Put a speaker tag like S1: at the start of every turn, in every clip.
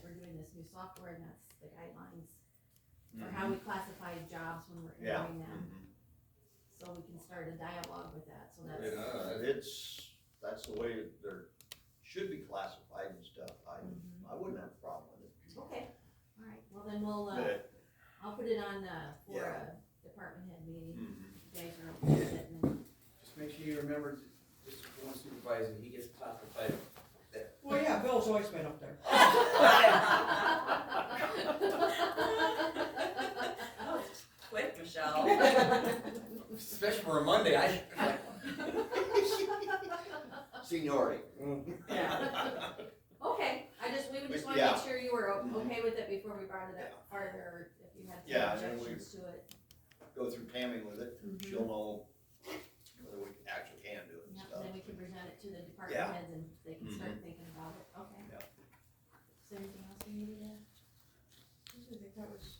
S1: through software and that's the guidelines for how we classify jobs when we're
S2: Mm-hmm. Yeah.
S1: interviewing them.
S3: Mhm.
S1: So we can start a dialogue with that, so that's,
S2: Yeah, uh, it's, that's the way they're, should be classified and stuff,
S1: Mhm.
S2: I, I wouldn't have a problem with it.
S1: okay, alright, well then we'll, uh,
S2: But-
S1: I'll put it on, uh, for
S2: Yeah.
S1: a department head meeting,
S2: Mhm.
S1: you guys are okay with it, and then-
S4: Just make sure you remember, just one supervisor, he gets classified.
S5: Well, yeah, Bill's always been up there.
S6: Oh, Quick, Michelle.
S4: Especially for a Monday, I.
S1: Mm-hmm.
S2: Seniority.
S1: Okay, I just, we would just
S2: But,
S1: wanna
S2: yeah.
S1: make sure you were o-
S2: Mhm.
S1: okay with it before we brought it up further, if you had
S2: Yeah,
S1: some
S2: and then we-
S1: objections to it.
S2: Go through Tammy with it,
S1: Mhm.
S2: she'll know whether we actually can do it and
S1: Yep,
S2: stuff.
S1: then we can present it to the department
S2: Yeah.
S1: heads and they can start
S5: Mm-hmm.
S1: thinking about it, okay.
S2: Yep.
S1: Is there anything else we needed to, add?
S5: I think that was,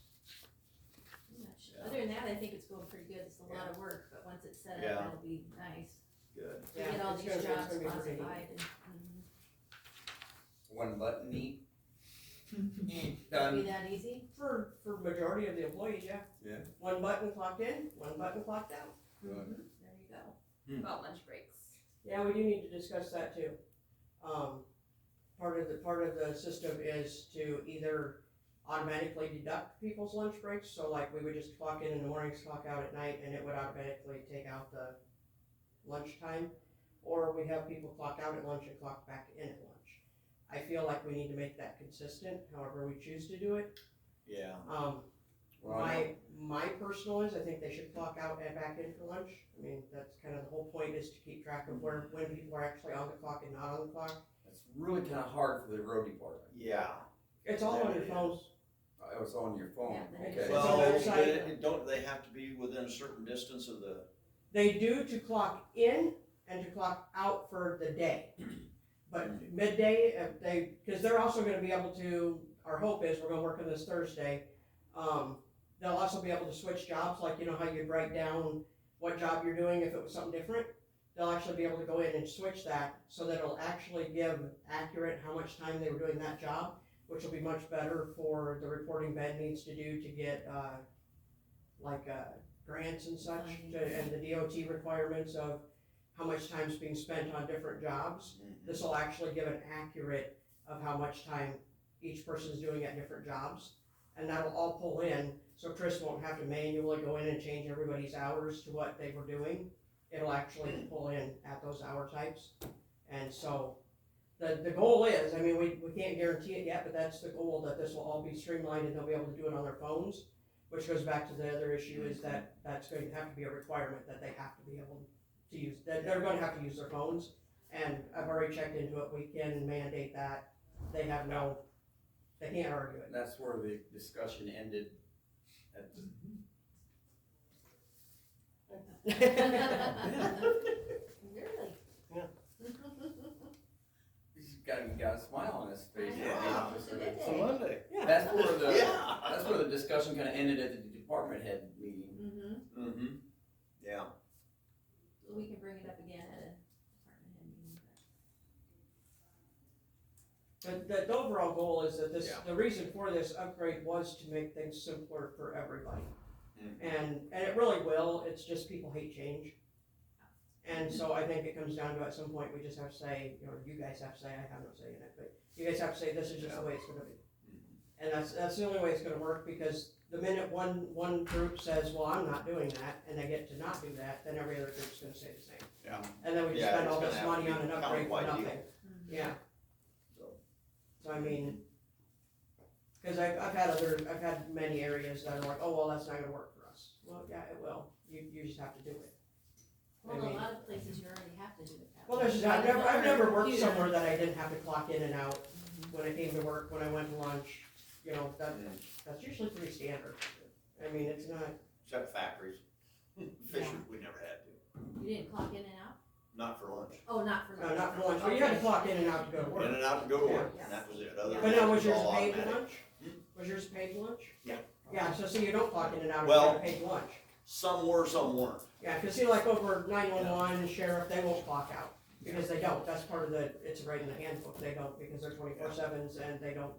S1: I'm not sure.
S2: Yeah.
S1: other than that, I think it's going pretty good, it's a lot of work, but once it's set
S2: Yeah.
S1: up, it'll be nice
S2: Good.
S1: to get
S5: Yeah,
S1: all
S5: it's
S1: these
S5: gonna be- it's
S1: jobs
S5: gonna be pretty.
S1: classified and, mhm.
S4: One button neat.
S1: be
S4: Done.
S1: that easy?
S5: for, for majority of the employees, yeah.
S4: Yeah.
S5: One button clocked in, one button clocked out.
S4: Good.
S1: Mm-hmm. There you go.
S6: About lunch breaks.
S5: Yeah, we do need to discuss that too. Um, part of the, part of the system is to either automatically deduct people's lunch breaks, so like we would just clock in in the mornings, clock out at night, and it would automatically take out the lunchtime. Or we have people clock out at lunch and clock back in at lunch. I feel like we need to make that consistent, however we choose to do it.
S2: Yeah,
S5: Um,
S4: Well, I
S5: my,
S4: know-
S5: my personal is, I think they should clock out and back in for lunch. I mean, that's kind of the whole point is to keep track of where, when people are actually on the clock and not on the clock.
S4: It's really kinda hard for the road department.
S2: yeah.
S5: It's all on
S2: There
S5: your
S2: it
S5: phone.
S2: is.
S4: Oh, It's on your phone,
S1: Yeah,
S4: okay.
S2: Well,
S5: It's a
S2: but
S5: website.
S2: it- don't they have to be within a certain distance of the,
S5: They do to clock in and to clock out for the day. But midday, if they, because they're also gonna be able to, our hope is, we're gonna work on this Thursday. Um, they'll also be able to switch jobs, like you know how you'd write down what job you're doing if it was something different? They'll actually be able to go in and switch that, so that it'll actually give accurate how much time they were doing that job, which will be much better for the reporting Ben needs to do to get, uh, like, uh, grants and such, to- and the DOT requirements of how much time's being spent on different jobs. This will actually give an accurate of how much time each person's doing at different jobs. And that'll all pull in, so Chris won't have to manually go in and change everybody's hours to what they were doing. It'll actually pull in at those hour types. And so, the, the goal is, I mean, we, we can't guarantee it yet, but that's the goal, that this will all be streamlined and they'll be able to do it on their phones. Which goes back to the other issue is that that's going to have to be a requirement that they have to be able to use, that they're gonna have to use their phones. And I've already checked into it, we can mandate that, they have no, they can't argue it.
S4: And that's where the discussion ended at the
S1: Really?
S5: Yeah.
S4: He's got, he got a smile on his face.
S2: Yeah.
S1: It's a
S4: Monday. That's where the,
S2: Yeah.
S4: that's where the discussion kinda ended at the department head meeting.
S1: Mm-hmm,
S2: Mm-hmm, yeah.
S1: so we can bring it up again at a department head meeting, but.
S5: The, the, the overall goal is that this,
S2: Yeah.
S5: the reason for this upgrade was to make things simpler for everybody.
S2: Mm.
S5: And, and it really will, it's just people hate change. And so I think it comes down to at some point, we just have to say, you know, you guys have to say, I have no say in it, but you guys have to say, this is just the way it's gonna be.
S2: Mm-hmm.
S5: And that's, that's the only way it's gonna work, because the minute one, one group says, well, I'm not doing that, and they get to not do that, then every other group's gonna say the same.
S2: Yeah.
S5: And then we just
S2: Yeah,
S5: spend
S2: it's
S5: all
S2: gonna
S5: this
S2: have to
S5: money
S2: be
S5: on an upgrade for
S2: countywide deal.
S5: nothing. Yeah.
S2: So.
S5: So I mean, cause I've, I've had other, I've had many areas that are like, oh, well, that's not gonna work for us. Well, yeah, it will, you, you just have to do it.
S1: Well,
S5: I
S1: in a
S5: mean-
S1: lot of places you already have to do it that way.
S5: Well, there's, I've never, I've never worked somewhere that I didn't have to Mm-hmm. clock in and out when I came to work, when I went to lunch, you know, that, that's usually pretty standard. I mean, it's not,
S2: Except factories. Fishers, we never had to,
S1: You didn't clock in and out?
S2: not for lunch.
S1: Oh, not for
S5: no,
S1: lunch.
S5: not for lunch, but you had to
S1: Okay.
S5: clock in and out to go to work.
S2: In and out to go to work, and that was it. Other
S5: But now, was
S2: than that,
S5: yours
S2: it all
S5: paid
S2: automatic.
S5: lunch? Was yours paid lunch?
S2: Yeah.
S5: Yeah, so see, you don't clock in and out if you
S2: Well-
S5: have paid lunch.
S2: Some were, some weren't.
S5: Yeah, cause see, like over nine-one-one and sheriff, they won't clock out, because they don't, that's part of the, it's right in the handbook, they don't, because they're twenty-four sevens and they don't